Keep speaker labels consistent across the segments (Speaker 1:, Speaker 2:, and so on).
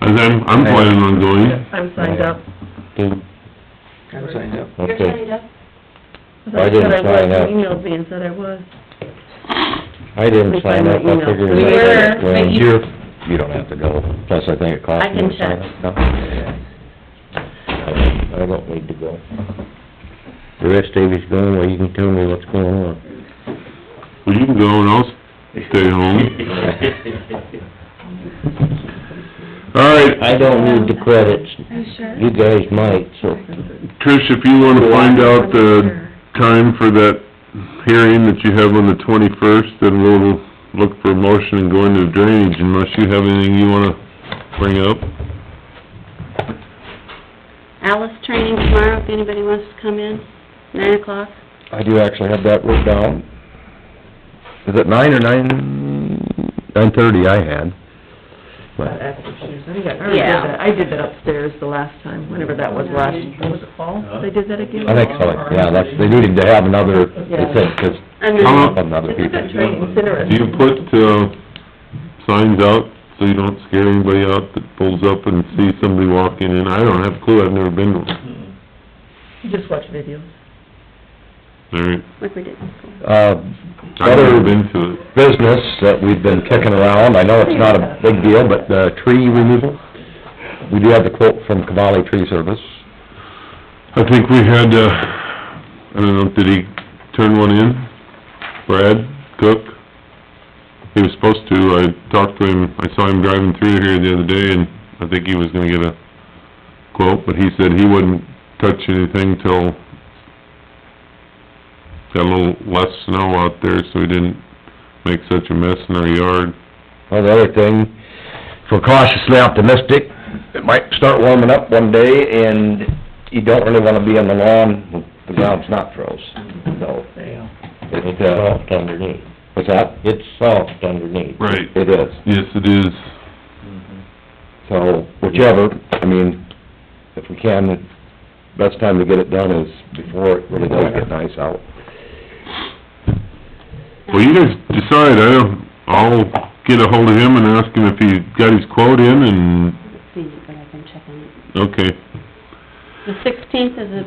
Speaker 1: As I'm, I'm planning on going.
Speaker 2: I'm signed up.
Speaker 3: Didn't-
Speaker 4: I'm signed up.
Speaker 5: You're
Speaker 3: Okay,
Speaker 5: signed up?
Speaker 3: I didn't
Speaker 2: said I was.
Speaker 3: sign up.
Speaker 2: You Emailed me and said I was.
Speaker 3: I
Speaker 2: We
Speaker 3: didn't sign
Speaker 2: signed
Speaker 3: up,
Speaker 2: the
Speaker 3: I
Speaker 2: email.
Speaker 3: figured.
Speaker 2: We
Speaker 5: were,
Speaker 3: Well,
Speaker 5: but you-
Speaker 3: you're- You don't have to go, plus I think it costs
Speaker 2: I
Speaker 3: you
Speaker 2: can
Speaker 3: to sign
Speaker 2: check.
Speaker 3: up. No. I I don't need to go. The rest of you's going, well, you can tell me what's going on.
Speaker 1: Well, you can go and I'll stay home. All right,
Speaker 3: I don't need the credits,
Speaker 5: Are you sure?
Speaker 3: you guys might, so.
Speaker 1: Trish, if you wanna find out the time for that hearing that you have on the twenty-first, then we'll look for a motion and go into drainage unless you have anything you wanna bring up.
Speaker 5: Alice training tomorrow, if anybody wants to come in, nine o'clock.
Speaker 3: I do actually have that wrote down. Is it nine or nine, nine-thirty I had?
Speaker 2: But
Speaker 3: But
Speaker 2: after she was- I think I already did
Speaker 5: Yeah.
Speaker 2: that. I did that upstairs the last time, whenever that was last, was it fall? They did that again?
Speaker 3: I think so, yeah, that's, they needed to have another,
Speaker 2: Yeah.
Speaker 3: they said, 'cause
Speaker 5: And
Speaker 1: How
Speaker 5: then,
Speaker 1: long-
Speaker 3: some other
Speaker 2: It's a good
Speaker 3: people.
Speaker 2: training, it's
Speaker 1: Do you
Speaker 2: interesting.
Speaker 1: put, uh, signs out so you don't scare anybody out that pulls up and sees somebody walking in? I don't have a clue, I've never been to one.
Speaker 2: You just watch videos.
Speaker 1: All right,
Speaker 5: like we did before.
Speaker 3: Uh,
Speaker 1: I've
Speaker 3: Other-
Speaker 1: never been to it.
Speaker 3: business that we've been kicking around, I know it's not a big deal, but the tree removal, we do have the quote from Cavalli Tree Service.
Speaker 1: I think we had, uh, I don't know, did he turn one in? Brad Cook? He was supposed to, I talked to him, I saw him driving through here the other day and I think he was gonna get a quote, but he said he wouldn't touch anything till got a little less snow out there, so he didn't make such a mess in our yard.
Speaker 3: Well, the other thing, if we're cautiously optimistic, it might start warming up one day, and you don't really wanna be on the lawn when the ground's not froze, so.
Speaker 2: Yeah.
Speaker 3: It's soft underneath. What's that? It's soft underneath.
Speaker 1: Right.
Speaker 3: It is,
Speaker 1: Yes, it is.
Speaker 3: so whichever, I mean, if we can, the best time to get it done is before it really does get nice out.
Speaker 1: Well, you guys decide, I don't, I'll get a hold of him and ask him if he got his quote in and
Speaker 5: I haven't seen it, but I can check on it.
Speaker 1: Okay,
Speaker 5: The sixteenth is a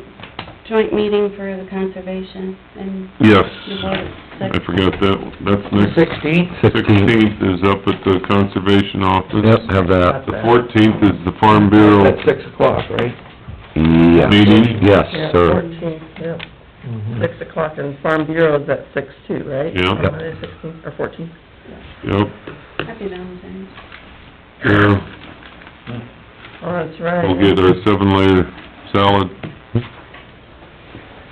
Speaker 5: joint meeting for the conservation and
Speaker 1: yes.
Speaker 5: the board of
Speaker 1: I
Speaker 5: selectmen.
Speaker 1: forgot that, that's next.
Speaker 3: Sixteenth?
Speaker 1: Sixteenth is up at the conservation office.
Speaker 3: Yep, have that.
Speaker 1: The fourteenth is the Farm Bureau
Speaker 3: At six o'clock, right? Yeah.
Speaker 1: meeting.
Speaker 3: Yes,
Speaker 2: Yeah,
Speaker 3: sir.
Speaker 2: fourteen, yeah. Six o'clock, and Farm Bureau is at six too, right?
Speaker 1: Yeah. Yep.
Speaker 2: Monday, 16th or fourteen.
Speaker 1: Yep,
Speaker 5: Happy Valentine's.
Speaker 1: yeah,
Speaker 2: Oh, that's right.
Speaker 1: we'll get our seven layer salad.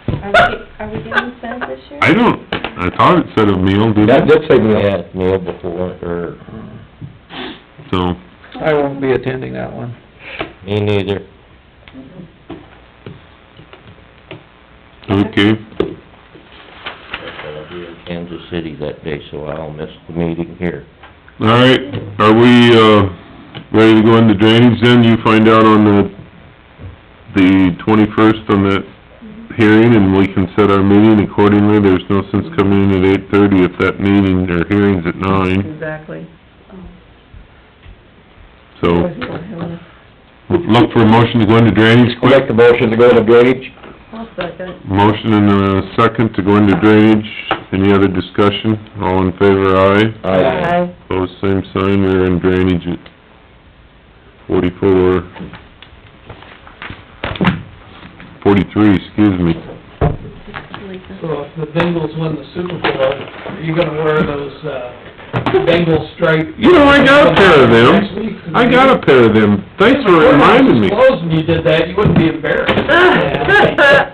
Speaker 5: Are we, are we getting fed this year?
Speaker 1: I don't, I thought it said a meal,
Speaker 3: That
Speaker 1: didn't it?
Speaker 3: did say meal. Yeah, meal before, or...
Speaker 1: So,
Speaker 4: I won't be attending that one.
Speaker 3: Me neither.
Speaker 1: okay,
Speaker 3: I'll be in Kansas City that day, so I'll miss the meeting here.
Speaker 1: all right, are we, uh, ready to go into drainage then? You find out on the, the twenty-first on that hearing and we can set our meeting accordingly. There's no sense coming in at eight-thirty if that meeting or hearing's at nine,
Speaker 2: Exactly.
Speaker 5: Oh.
Speaker 1: so.
Speaker 2: Always want him on.
Speaker 1: Look for a motion to go into drainage
Speaker 3: I'll
Speaker 1: quick.
Speaker 3: make the motion to go into drainage.
Speaker 2: I'll second.
Speaker 1: Motion and a second to go into drainage. Any other discussion? All in favor, aye.
Speaker 2: Aye.
Speaker 1: Opposed, Oh, same sign. We're in drainage at forty-four, forty-three, excuse me.
Speaker 5: Like that.
Speaker 6: So if the Bengals win the Super Bowl, are you gonna wear those, uh, Bengal stripe?
Speaker 1: You know, I got a pair of
Speaker 6: Next week?
Speaker 1: them. I got a pair of them. Thanks for reminding me.
Speaker 6: If you were disclosed and you did that, you wouldn't be embarrassed.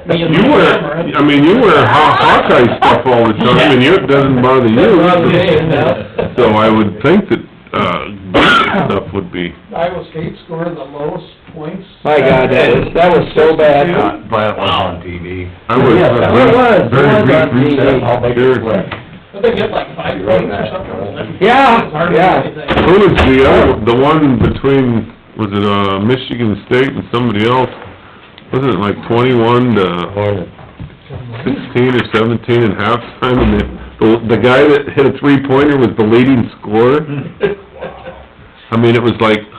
Speaker 6: Me and
Speaker 1: You
Speaker 6: my
Speaker 1: wear,
Speaker 6: camera.
Speaker 1: I mean, you wear Haw- Hawkeye stuff all the time and you- it doesn't bother you.
Speaker 6: Doesn't bother me, no.
Speaker 1: So I would think that, uh, stuff would be...
Speaker 6: Iowa State scored the lowest points.
Speaker 3: My God, that is, that was so bad.
Speaker 7: But was on TV.
Speaker 1: I was,
Speaker 3: Yes, that was.
Speaker 1: uh, very
Speaker 3: That
Speaker 1: brief
Speaker 3: was on
Speaker 1: recess.
Speaker 3: TV. I'll make it
Speaker 1: Sure.
Speaker 3: quick.
Speaker 6: But they get like five points or something, wasn't it?
Speaker 3: Yeah,
Speaker 6: It's hardly
Speaker 3: yeah.
Speaker 6: anything.
Speaker 1: Who was the other, the one between, was it, uh, Michigan State and somebody else? Wasn't it like twenty-one to sixteen or seventeen at halftime? And the, the- the guy that hit a three-pointer was the leading scorer? I mean, it was like